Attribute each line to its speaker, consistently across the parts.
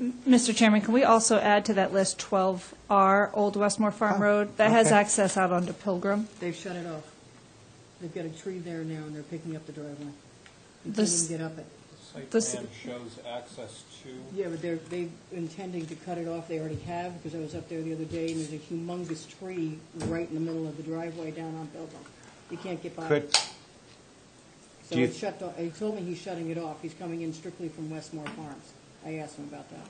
Speaker 1: Mr. Chairman, can we also add to that list 12R, Old Westmore Farm Road? That has
Speaker 2: Oh, okay.
Speaker 1: access out onto Pilgrim.
Speaker 3: They've shut it off. They've got a tree there now, and they're picking up the driveway. You can't
Speaker 1: This-
Speaker 3: even get up it.
Speaker 4: Site
Speaker 1: This-
Speaker 4: plan shows access to,
Speaker 3: Yeah, but they're, they intending to cut it off, they already have, because I was up there the other day, and there's a humongous tree right in the middle of the driveway down on Belgium. You can't get by.
Speaker 2: Could,
Speaker 3: it. So
Speaker 2: do you-
Speaker 3: it's shut, off- he told me he's shutting it off, he's coming in strictly from Westmore Farms. I asked him about that.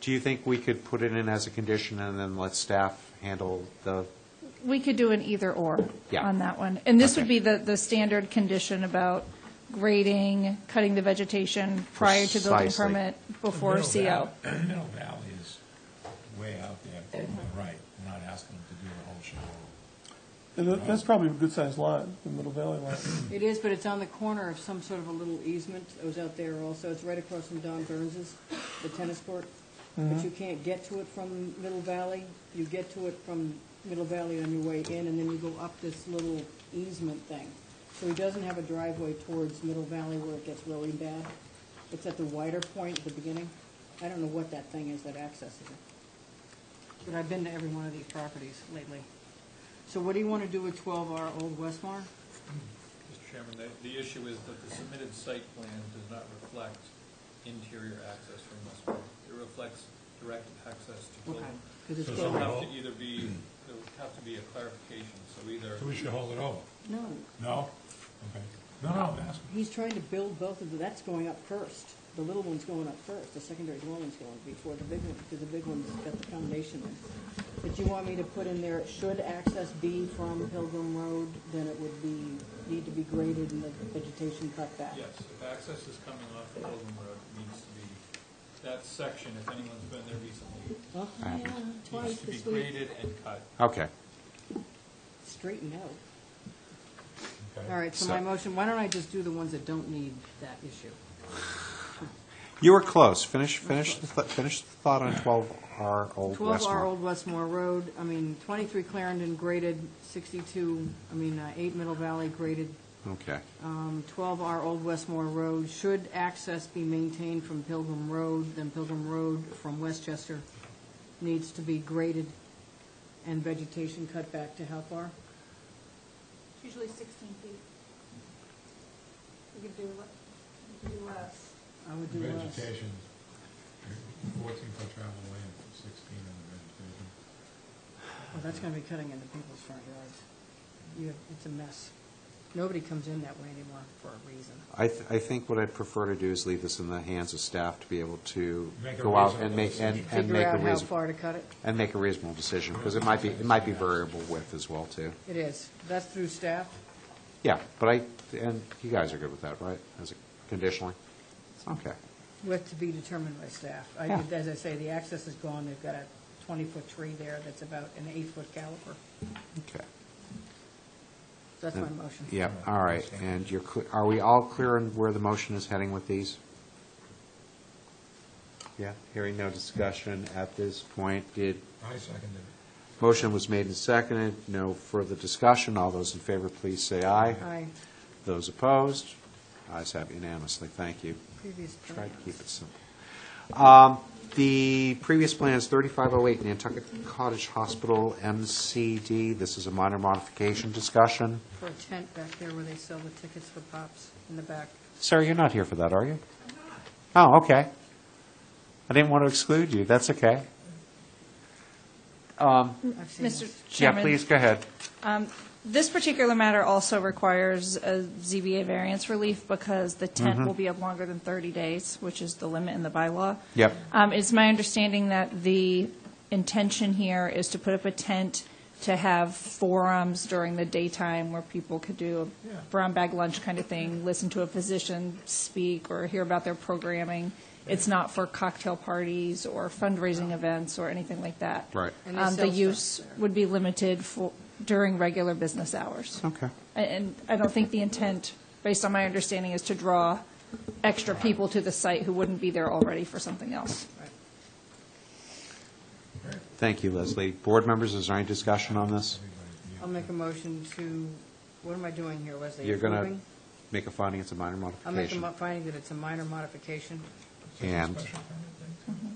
Speaker 2: do you think we could put it in as a condition and then let staff handle the,
Speaker 1: We could do an either-or
Speaker 2: Yeah.
Speaker 1: on that one. And this would
Speaker 2: Okay.
Speaker 1: be the, the standard condition about grading, cutting the vegetation prior to building
Speaker 2: Precisely.
Speaker 1: permit, before
Speaker 5: Middle
Speaker 1: CO.
Speaker 5: Valley- Middle Valley is way out there, on the right, We're not asking them to do the whole show.
Speaker 6: And that- that's probably a good-sized lot, the Middle Valley lot.
Speaker 3: It is, but it's on the corner of some sort of a little easement. I was out there also. It's right across from Don Burns's, the tennis court. But you can't get to it from Middle Valley. You get to it from Middle Valley on your way in, and then you go up this little easement thing. So he doesn't have a driveway towards Middle Valley where it gets really bad. It's at the wider point at the beginning. I don't know what that thing is that accesses it. But I've been to every one of these properties lately. So what do you want to do with 12R Old Westmore?
Speaker 4: Mr. Chairman, the, the issue is that the submitted site plan does not reflect interior access from Westmore. It reflects direct access to
Speaker 3: Okay,
Speaker 4: building.
Speaker 3: 'cause it's
Speaker 5: So
Speaker 4: There'll
Speaker 3: going-
Speaker 4: have to either be, there'll have to be a clarification, so either,
Speaker 5: So we should hold it over?
Speaker 3: No,
Speaker 5: No? Okay. No, no, I'm asking.
Speaker 3: he's trying to build both of them, that's going up first. The little one's going up first, the secondary dwelling's going before the big one, because the big one's got the foundation in. But you want me to put in there, should access be from Pilgrim Road, then it would be, need to be graded and the vegetation cut back.
Speaker 4: yes, if access is coming off of Golden Road, it needs to be, that section, if anyone's been there recently,
Speaker 3: Oh, yeah,
Speaker 4: needs
Speaker 3: twice
Speaker 4: to be
Speaker 3: this week,
Speaker 4: graded and cut.
Speaker 2: okay.
Speaker 3: straighten out.
Speaker 5: Okay.
Speaker 3: All right, so my
Speaker 2: So-
Speaker 3: motion, why don't I just do the ones that don't need that issue?
Speaker 2: You were close. Finish, finish, the th- finish the thought on 12R Old
Speaker 3: 12 R
Speaker 2: Westmore.
Speaker 3: Old Westmore Road, I mean, 23 Clarendon graded, 62, I mean, uh, 8 Middle Valley graded,
Speaker 2: Okay.
Speaker 3: um, 12 R Old Westmore Road. Should access be maintained from Pilgrim Road, then Pilgrim Road from Westchester needs to be graded and vegetation cut back to how far?
Speaker 7: It's usually 16 feet. You could do, le- you could do less.
Speaker 3: I would do less.
Speaker 5: Vegetation, fourteen foot travel lane, sixteen on the vegetation.
Speaker 3: Well, that's going to be cutting into people's front yards. You, it's a mess. Nobody comes in that way anymore for a reason.
Speaker 2: I, th- I think what I'd prefer to do is leave this in the hands of staff to be able to
Speaker 5: Make a
Speaker 2: go out
Speaker 5: reasonable
Speaker 2: and make, and,
Speaker 5: decision.
Speaker 2: and make
Speaker 3: Figure
Speaker 2: a
Speaker 3: out how
Speaker 2: reasonable,
Speaker 3: far to cut it.
Speaker 2: and make a reasonable decision, because it might be, it might be variable width as well, too.
Speaker 3: It is. That's through staff.
Speaker 2: Yeah, but I, and you guys are good with that, right, as a conditionally? Okay.
Speaker 3: With to be determined by staff. I
Speaker 2: Yeah.
Speaker 3: did, as I say, the access is gone, they've got a twenty-foot tree there that's about an eight-foot caliper.
Speaker 2: Okay.
Speaker 3: That's my motion.
Speaker 2: Uh, Yeah, all right, and you're, cle- are we all clear on where the motion is heading with these? Yeah, hearing no discussion at this point. Did,
Speaker 5: I seconded it.
Speaker 2: motion was made and seconded, no further discussion. All those in favor, please say aye.
Speaker 3: Aye,
Speaker 2: Those opposed, ayes have unanimously. Thank you.
Speaker 3: previous
Speaker 2: Try to
Speaker 3: plans.
Speaker 2: keep it simple. Um, The previous plan is 3508 Nantucket Cottage Hospital, MCD. This is a minor modification discussion.
Speaker 3: For a tent back there where they sell the tickets for pops in the back.
Speaker 2: Sarah, you're not here for that, are you? Oh, okay. I didn't want to exclude you, that's okay. Um,
Speaker 3: I've seen
Speaker 1: Mr.
Speaker 3: this.
Speaker 2: Yeah,
Speaker 1: Chairman?
Speaker 2: please, go ahead.
Speaker 1: This particular matter also requires a ZBA variance relief because the
Speaker 2: Mm-hmm.
Speaker 1: tent will be up longer than 30 days, which is the limit in the bylaw.
Speaker 2: Yep.
Speaker 1: Um, It's my understanding that the intention here is to put up a tent to have forums during the daytime where people could do a brown bag lunch kind of thing, listen to a physician speak or hear about their programming. It's not for cocktail parties or fundraising events or anything like that.
Speaker 2: Right.
Speaker 3: And they
Speaker 1: Um,
Speaker 3: sell
Speaker 1: The
Speaker 3: stuff
Speaker 1: use
Speaker 3: there.
Speaker 1: would be limited for, during regular business hours.
Speaker 2: Okay.
Speaker 1: And- And I don't think the intent, based on my understanding, is to draw extra people to the site who wouldn't be there already for something else.
Speaker 2: Thank you, Leslie. Board members, is there any discussion on this?
Speaker 3: I'll make a motion to, what am I doing here, Wesley?
Speaker 2: You're going to
Speaker 3: Approving?
Speaker 2: make a finding it's a minor
Speaker 3: I'll make a
Speaker 2: modification.
Speaker 3: mo- finding that it's a minor modification.
Speaker 2: And,
Speaker 5: Special permit thing?